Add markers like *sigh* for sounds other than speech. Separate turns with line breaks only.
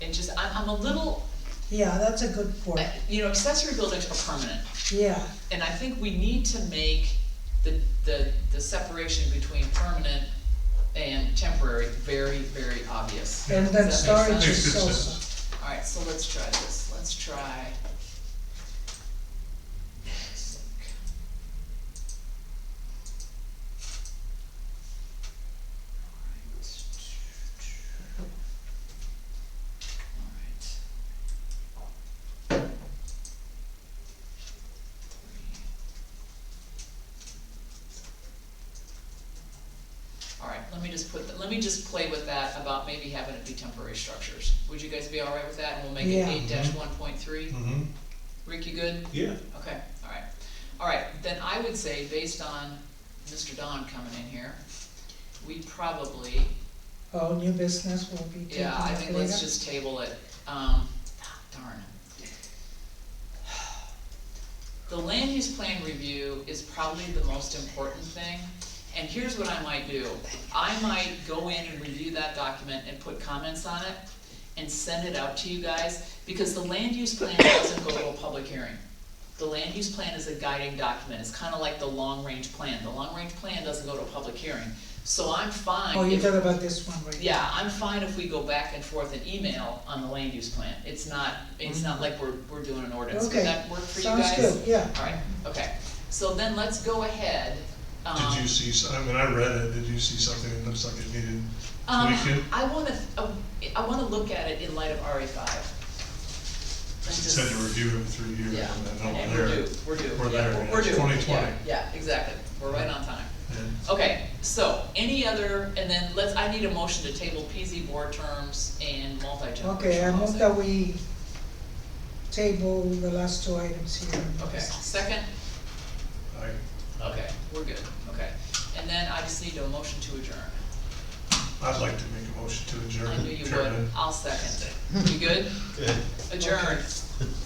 I'm a little, uh,
Yeah, that's a good point,
you know, accessory buildings are permanent,
yeah,
and I think we need to make the, the, the separation between permanent and temporary very, very obvious.
and then
Does that make
storage
sense?
is
Makes good
also.
*laughs* Alright, so let's try this, let's try. Alright. Alright, let me just put, th- let me just play with that about maybe having it be temporary structures. Would you guys be alright with that? And we'll make it
Yeah.
eight dash one point three.
Mm-hmm,
Rick, you good?
yeah.
Okay, alright. Alright, then I would say, based on Mr. Don coming in here, we probably,
Oh, new business will be taken
yeah,
up
I
later.
think let's just table it. Um, ah, darn. The land use plan review is probably the most important thing, and here's what I might do. I might go in and review that document and put comments on it and send it out to you guys, because the land use plan doesn't go to a public hearing. The land use plan is a guiding document, it's kinda like the long-range plan. The long-range plan doesn't go to a public hearing, so I'm fine
Oh, you
if-
thought about this one, right?
yeah, I'm fine if we go back and forth in email on the land use plan. It's not, it's not like we're, we're doing an ordinance. Would
Mm-hmm. Okay,
that work for you guys?
Sounds good, yeah.
Alright, okay. So then let's go ahead. um,
Did you see, s- I mean, I read it, did you see something that looks like it needed
Um,
tweaking?
I wanna, uh, I wanna look at it in light of RE five.
It Said to review it in three years,
Yeah,
and then
and
I'm
we're due,
there.
we're due.
We're
Yeah,
there, yeah.
We're due.
2020.
Yeah, Yeah, exactly. We're right on time.
And
Okay, so any other, and then let's, I need a motion to table PZ board terms and multi-generational
Okay, I move
housing.
that we table the last two items here.
Okay, second?
I,
Okay, we're good, okay. And then I just need a motion to adjourn.
I'd like to make a motion to adjourn.
I knew you would,
Chairman.
I'll second it. You good? Adjourn.